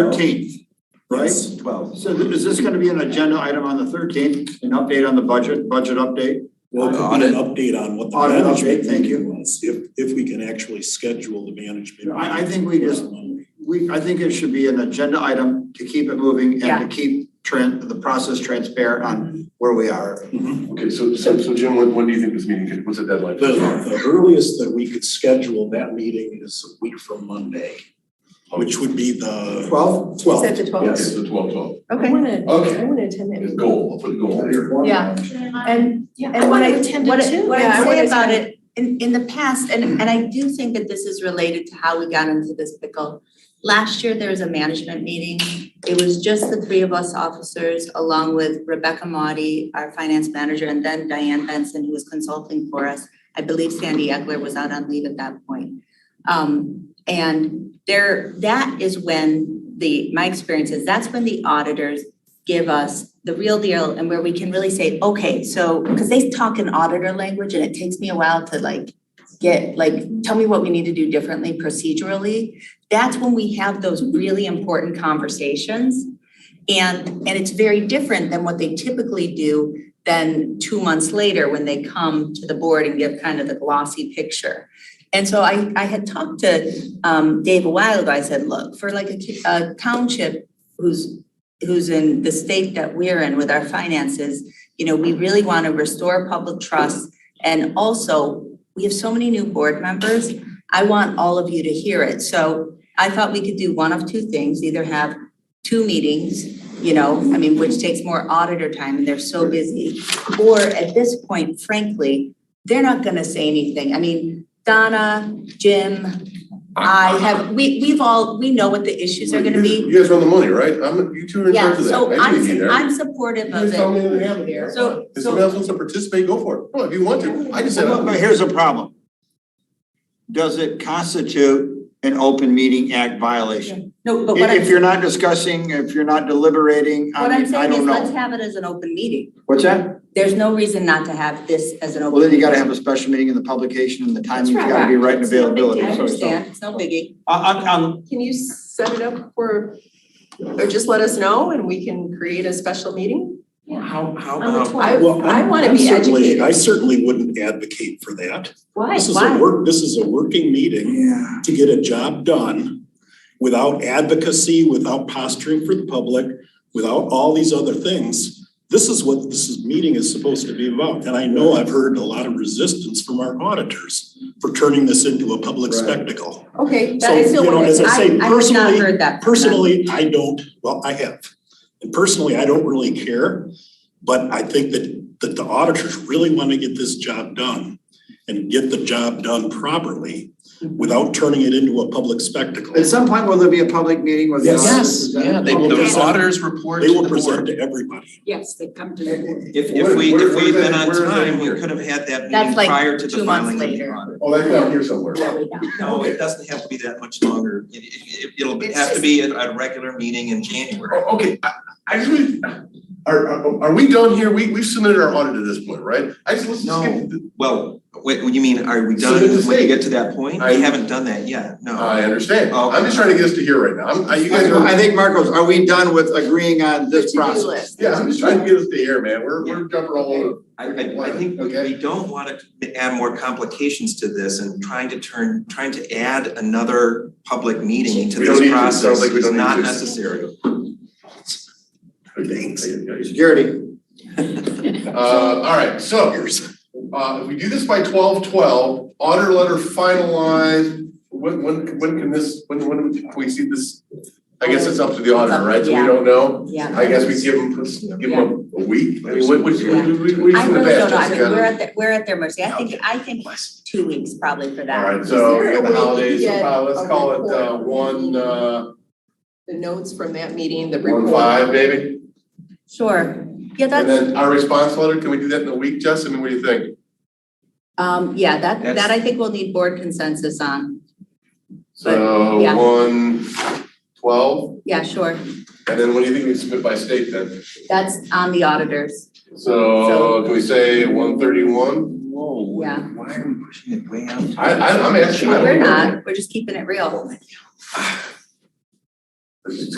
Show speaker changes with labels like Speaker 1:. Speaker 1: thirteenth, right?
Speaker 2: Twelve.
Speaker 1: So th- is this gonna be an agenda item on the thirteenth, an update on the budget, budget update?
Speaker 3: Well, it could be an update on what the
Speaker 1: Audit update,
Speaker 3: management
Speaker 1: thank you.
Speaker 3: meeting was, if, if we can actually schedule the management.
Speaker 1: I, I
Speaker 3: meeting.
Speaker 1: think we just, we, I think it should be an agenda item to keep it moving
Speaker 4: Yeah.
Speaker 1: and to keep tran the process transparent on where we are.
Speaker 3: Mm-hmm.
Speaker 5: Okay, so, so, so Jim, when, when do you think this meeting, could- what's the deadline?
Speaker 3: The, the earliest that we could schedule that meeting is a week from Monday, which would be the
Speaker 1: Twelve?
Speaker 4: Is that
Speaker 3: twelfth.
Speaker 4: the
Speaker 5: Okay,
Speaker 4: twelfth?
Speaker 5: so twelve, twelve.
Speaker 6: I
Speaker 4: Okay.
Speaker 6: wanna,
Speaker 5: Okay.
Speaker 6: I wanna attend that
Speaker 5: It's
Speaker 6: meeting.
Speaker 5: goal, I'll put a goal here.
Speaker 4: Yeah. And,
Speaker 6: Yeah,
Speaker 4: and what I, what I, what
Speaker 6: Yeah,
Speaker 4: I
Speaker 6: I
Speaker 4: say
Speaker 6: wanna
Speaker 4: about
Speaker 6: attend.
Speaker 4: it, in, in the past, and, and I do think that this is related to how we got into this pickle. Last year, there was a management meeting. It was just the three of us officers, along with Rebecca Maudie, our finance manager, and then Diane Benson, who was consulting for us. I believe Sandy Eckler was out on leave at that point. Um, and there, that is when the, my experience is, that's when the auditors give us the real deal and where we can really say, okay, so, because they talk in auditor language and it takes me a while to like get, like, tell me what we need to do differently procedurally. That's when we have those really important conversations. And, and it's very different than what they typically do than two months later when they come to the board and give kind of the glossy picture. And so I, I had talked to, um, Dave a while ago, I said, look, for like a, ki- a township who's who's in the state that we're in with our finances, you know, we really want to restore public trust. And also, we have so many new board members. I want all of you to hear it. So I thought we could do one of two things, either have two meetings, you know, I mean, which takes more auditor time and they're so busy. Or at this point, frankly, they're not going to say anything. I mean, Donna, Jim, I have, we, we've all, we know what the issues are going to be.
Speaker 5: You guys run the money, right? I'm, you two are in
Speaker 4: Yeah,
Speaker 5: charge of that.
Speaker 4: so
Speaker 5: I
Speaker 4: I'm,
Speaker 5: need to be
Speaker 4: su-
Speaker 5: there.
Speaker 4: I'm supportive
Speaker 5: You
Speaker 4: of
Speaker 5: just tell me that you have it.
Speaker 4: it. So,
Speaker 5: If somebody
Speaker 4: so,
Speaker 5: else wants to participate, go for it. Well, if you want to, I just said.
Speaker 1: But but here's a problem. Does it constitute an open meeting act violation?
Speaker 4: no, but what
Speaker 1: If, if
Speaker 4: I'm,
Speaker 1: you're not discussing, if you're not deliberating,
Speaker 4: what
Speaker 1: I
Speaker 4: I'm
Speaker 1: mean, I
Speaker 4: saying is
Speaker 1: don't know.
Speaker 4: let's have it as an open meeting.
Speaker 1: What's that?
Speaker 4: There's no reason not to have this as an open.
Speaker 1: Well, then you gotta have a special meeting and the publication and the timing's
Speaker 6: right.
Speaker 1: gotta be right and
Speaker 6: It's no big
Speaker 1: availability,
Speaker 6: deal.
Speaker 4: I
Speaker 1: so it's all-
Speaker 4: understand, it's no biggie.
Speaker 1: I, I'm, I'm,
Speaker 6: Can you set it up for, or just let us know and we can create a special meeting?
Speaker 3: How, how
Speaker 6: On the
Speaker 3: about?
Speaker 6: 12th.
Speaker 3: Well,
Speaker 6: I
Speaker 3: Um, I'm-
Speaker 6: wanna
Speaker 3: I'm
Speaker 6: be
Speaker 3: certainly-
Speaker 6: educated.
Speaker 3: I certainly wouldn't advocate for that.
Speaker 6: Why,
Speaker 3: This is a work, this is a working meeting
Speaker 1: Yeah.
Speaker 3: to get a job done without advocacy, without posturing for the public, without all these other things. This is what this is- meeting is supposed to be about. And I know I've heard a lot of resistance from our auditors for turning this into a public
Speaker 5: Right.
Speaker 3: spectacle.
Speaker 6: Okay,
Speaker 3: So,
Speaker 6: that is
Speaker 3: you
Speaker 6: still
Speaker 3: know,
Speaker 6: what it
Speaker 3: as
Speaker 6: is.
Speaker 3: I say,
Speaker 4: I, I have not
Speaker 3: personally-
Speaker 4: heard that. from them.
Speaker 3: Personally, I don't, well, I have. And personally, I don't really care, but I think that, that the auditors really want to get this job done and get the job done properly without turning it into a public spectacle.
Speaker 1: At some point, will there be a public meeting with the
Speaker 3: Yes.
Speaker 1: auditors?
Speaker 7: Yeah, they,
Speaker 3: Okay.
Speaker 7: the auditors report
Speaker 3: They
Speaker 7: to
Speaker 3: will
Speaker 7: the
Speaker 3: present
Speaker 7: board.
Speaker 3: to everybody.
Speaker 6: Yes, they come to the board.
Speaker 7: If,
Speaker 5: Where-
Speaker 7: if we,
Speaker 5: where-
Speaker 7: if
Speaker 5: where
Speaker 7: we've
Speaker 5: is
Speaker 7: been
Speaker 5: that-
Speaker 7: on
Speaker 5: where is that
Speaker 7: time, we
Speaker 5: here?
Speaker 7: could have had that meeting
Speaker 4: That's like
Speaker 7: prior to
Speaker 4: two
Speaker 7: the
Speaker 4: months
Speaker 7: filing of the
Speaker 4: later.
Speaker 7: audit.
Speaker 5: Oh, that's down here somewhere.
Speaker 4: Really not.
Speaker 7: No, it doesn't have to be that much longer. It, it, it'll
Speaker 4: It's
Speaker 7: have to
Speaker 4: just-
Speaker 7: be at a regular meeting in January.
Speaker 5: Oh, okay, I, I just really, are, are, are we done here? We, we've submitted our audit at this point, right? I just, let's just get.
Speaker 7: Well, wait, what do you mean, are we done
Speaker 5: So this is
Speaker 7: when
Speaker 5: it.
Speaker 7: you get to that point?
Speaker 5: I-
Speaker 7: We haven't done that yet, no.
Speaker 5: I understand.
Speaker 7: Okay.
Speaker 5: I'm just trying to get us to here right now. I'm, I- you guys are,
Speaker 1: I think Marcos, are we done with agreeing on this
Speaker 6: To-do
Speaker 1: process?
Speaker 6: list.
Speaker 5: yeah, I'm just trying to get us to here, man. We're, we're jumping all over.
Speaker 7: I, I, I think we,
Speaker 5: Okay.
Speaker 7: we don't wanna add more complications to this and trying to turn, trying to add another public meeting to
Speaker 5: We don't need
Speaker 7: this
Speaker 5: to. Sounds
Speaker 7: process
Speaker 5: like we
Speaker 7: is
Speaker 5: don't need
Speaker 7: not
Speaker 5: to.
Speaker 7: necessary.
Speaker 5: Thanks.
Speaker 1: Security,
Speaker 5: Uh, all right, so, uh, if we do this by twelve twelve, order letter finalized, when, when, when can this, when, when can we see this? I guess it's up to the auditor, right? So we
Speaker 4: Yeah.
Speaker 5: don't know.
Speaker 4: Yeah.
Speaker 5: I guess we give them, give them a week. I mean, what, what, what, what,
Speaker 4: I
Speaker 5: in the
Speaker 4: really don't
Speaker 5: past,
Speaker 4: know, I mean, we're
Speaker 5: Jessica?
Speaker 4: at, the- we're at their mercy. I think, I think two weeks probably for
Speaker 5: All
Speaker 4: that.
Speaker 5: right, so
Speaker 6: Is
Speaker 5: we
Speaker 6: there a
Speaker 5: got
Speaker 6: way
Speaker 5: the
Speaker 6: to
Speaker 5: holidays, so
Speaker 6: get
Speaker 5: probably
Speaker 6: a
Speaker 5: let's call it, uh,
Speaker 6: report?
Speaker 5: one, uh,
Speaker 6: The notes from that meeting, the report.
Speaker 5: one five, maybe?
Speaker 4: Sure, yeah,
Speaker 5: And
Speaker 4: that's,
Speaker 5: then our response letter, can we do that in a week, Justin? I mean, what do you think?
Speaker 4: um, yeah, that,
Speaker 7: That's-
Speaker 4: that I think we'll need board consensus on.
Speaker 5: So,
Speaker 4: yeah.
Speaker 5: one, twelve,
Speaker 4: Yeah, sure,
Speaker 5: and then what do you think we submit by state then?
Speaker 4: that's on the auditors,
Speaker 5: So can we say one thirty-one?
Speaker 7: Whoa,
Speaker 4: Yeah.
Speaker 7: why are we pushing it way out?
Speaker 5: I, I, I'm actually. I don't
Speaker 4: we're
Speaker 5: know.
Speaker 4: not, we're just keeping it real.
Speaker 5: This is